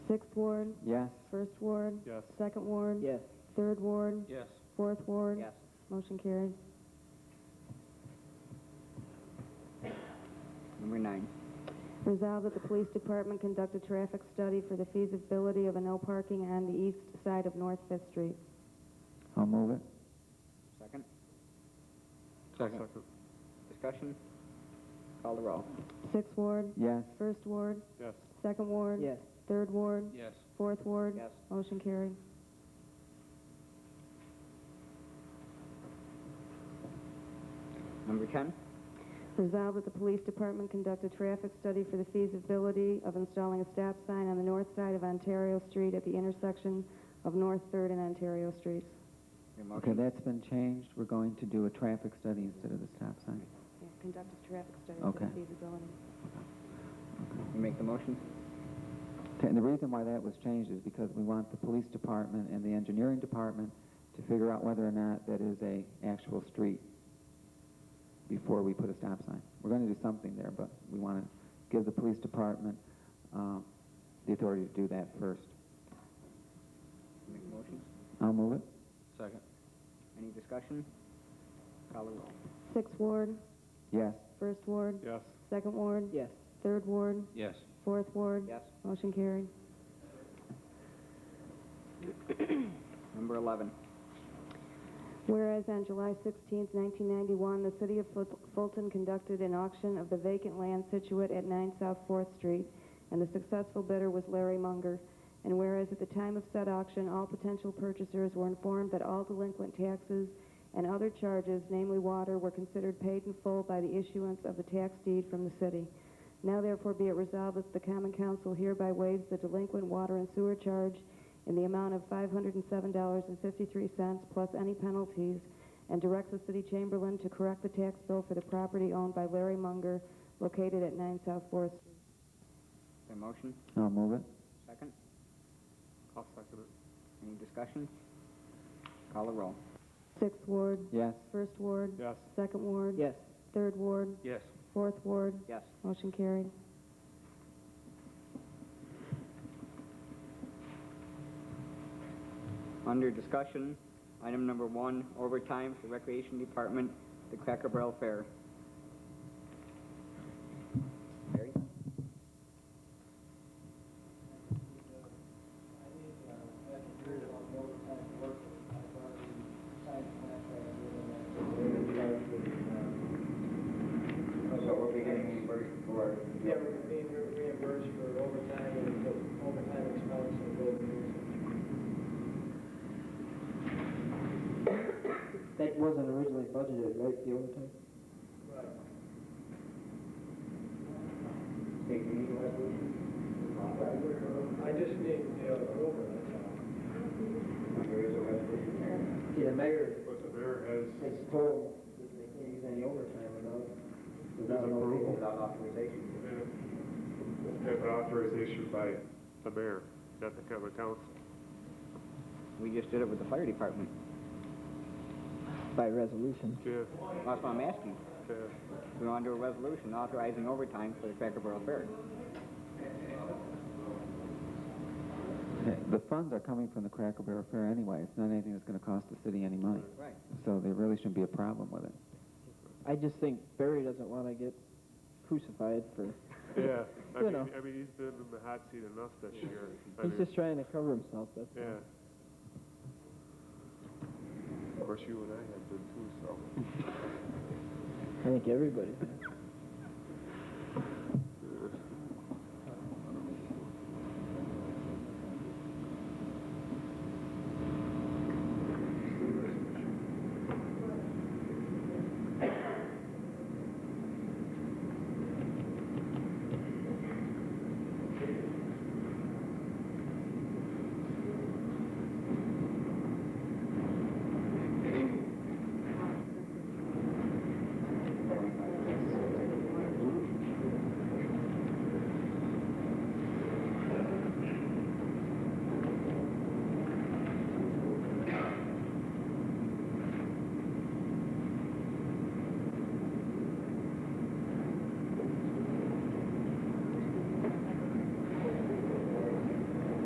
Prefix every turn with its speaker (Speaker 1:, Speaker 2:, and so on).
Speaker 1: Sixth ward,
Speaker 2: Yes.
Speaker 1: first ward.
Speaker 3: Yes.
Speaker 1: Second ward.
Speaker 4: Yes.
Speaker 1: Third ward,
Speaker 3: Yes.
Speaker 1: fourth ward.
Speaker 4: Yes.
Speaker 1: Motion carried.
Speaker 2: Number nine.
Speaker 1: Resolved that the police department conduct a traffic study for the feasibility of a no parking on the east side of North Fifth Street.
Speaker 2: I'll move it.
Speaker 4: Second.
Speaker 3: Second.
Speaker 4: Discussion. Call the roll.
Speaker 1: Sixth ward,
Speaker 2: Yes.
Speaker 1: first ward,
Speaker 3: Yes.
Speaker 1: second ward.
Speaker 4: Yes.
Speaker 1: Third ward,
Speaker 3: Yes.
Speaker 1: fourth ward.
Speaker 4: Yes.
Speaker 1: Motion carried.
Speaker 4: Number ten.
Speaker 1: Resolved that the police department conduct a traffic study for the feasibility of installing a stop sign on the north side of Ontario Street at the intersection of North Third and Ontario Streets.
Speaker 4: Your
Speaker 2: Okay,
Speaker 4: motion.
Speaker 2: that's been changed. We're going to do a traffic study instead of the stop sign.
Speaker 1: Conduct a traffic study
Speaker 2: for the Okay.
Speaker 1: feasibility.
Speaker 4: You make the motion.
Speaker 2: Okay, And the reason why that was changed is because we want the police department and the engineering department to figure out whether or not that is a actual street before we put a stop sign. We're going to do something there, but we want to give the police department um, the authority to do that first.
Speaker 4: You make the motion.
Speaker 2: I'll move it.
Speaker 3: Second.
Speaker 4: Any discussion? Call the roll.
Speaker 1: Sixth ward,
Speaker 2: Yes.
Speaker 1: first ward,
Speaker 3: Yes.
Speaker 1: second ward,
Speaker 4: Yes.
Speaker 1: third ward,
Speaker 3: Yes.
Speaker 1: fourth ward.
Speaker 4: Yes.
Speaker 1: Motion carried.
Speaker 4: Number eleven.
Speaker 1: Whereas on July 16, 1991, the City of Ful- Fulton conducted an auction of the vacant land situate at 9 South 4th Street, and the successful bidder was Larry Munger. And whereas at the time of said auction, all potential purchasers were informed that all delinquent taxes and other charges, namely water, were considered paid in full by the issuance of the tax deed from the city. Now therefore be it resolved that the Common Council hereby waives the delinquent water and sewer charge in the amount of $507.53 plus any penalties and directs the city chamberlain to correct the tax bill for the property owned by Larry Munger located at 9 South Fourth.
Speaker 4: Your motion.
Speaker 2: I'll move it.
Speaker 4: Second.
Speaker 3: I'll second it.
Speaker 4: Any discussion? Call the roll.
Speaker 1: Sixth Ward,
Speaker 2: Yes.
Speaker 1: First Ward,
Speaker 3: Yes.
Speaker 1: Second Ward,
Speaker 4: Yes.
Speaker 1: Third Ward,
Speaker 3: Yes.
Speaker 1: Fourth Ward.
Speaker 4: Yes.
Speaker 1: Motion carried.
Speaker 4: Under discussion, item number one, overtime for Recreation Department, the Cracker Barrel Fair. Barry?
Speaker 5: I think, uh, after a period of overtime work, I thought we signed a contract with them.
Speaker 6: So we'll be getting reimbursed for,
Speaker 5: Yeah, we're being re- reimbursed for overtime and for overtime expense and gold dues.
Speaker 6: that wasn't originally budgeted, right, the overtime?
Speaker 5: Right.
Speaker 6: Hey, do you need a resolution?
Speaker 5: I just need, you know, overtime.
Speaker 6: There is a resolution there.
Speaker 5: See, the mayor
Speaker 3: But the mayor has,
Speaker 5: has told that they can't use any overtime without,
Speaker 6: Without approval. Without authorization.
Speaker 3: have authorization by the mayor, not the common council.
Speaker 4: We just did it with the fire department.
Speaker 2: By resolution.
Speaker 3: Yeah,
Speaker 4: That's what I'm asking.
Speaker 3: yeah.
Speaker 4: We want to do a resolution authorizing overtime for the Cracker Barrel Fair.
Speaker 2: The funds are coming from the Cracker Barrel Fair anyway. It's not anything that's going to cost the city any money.
Speaker 4: Right.
Speaker 2: So there really shouldn't be a problem with it.
Speaker 7: I just think Barry doesn't want to get crucified for.
Speaker 3: Yeah, I
Speaker 7: You
Speaker 3: mean,
Speaker 7: know.
Speaker 3: I mean, he's been in the hot seat enough this year. I
Speaker 7: He's
Speaker 3: mean,
Speaker 7: just trying to cover himself. That's all.
Speaker 3: Yeah. Of course, you and I have been too, so.
Speaker 7: I think everybody.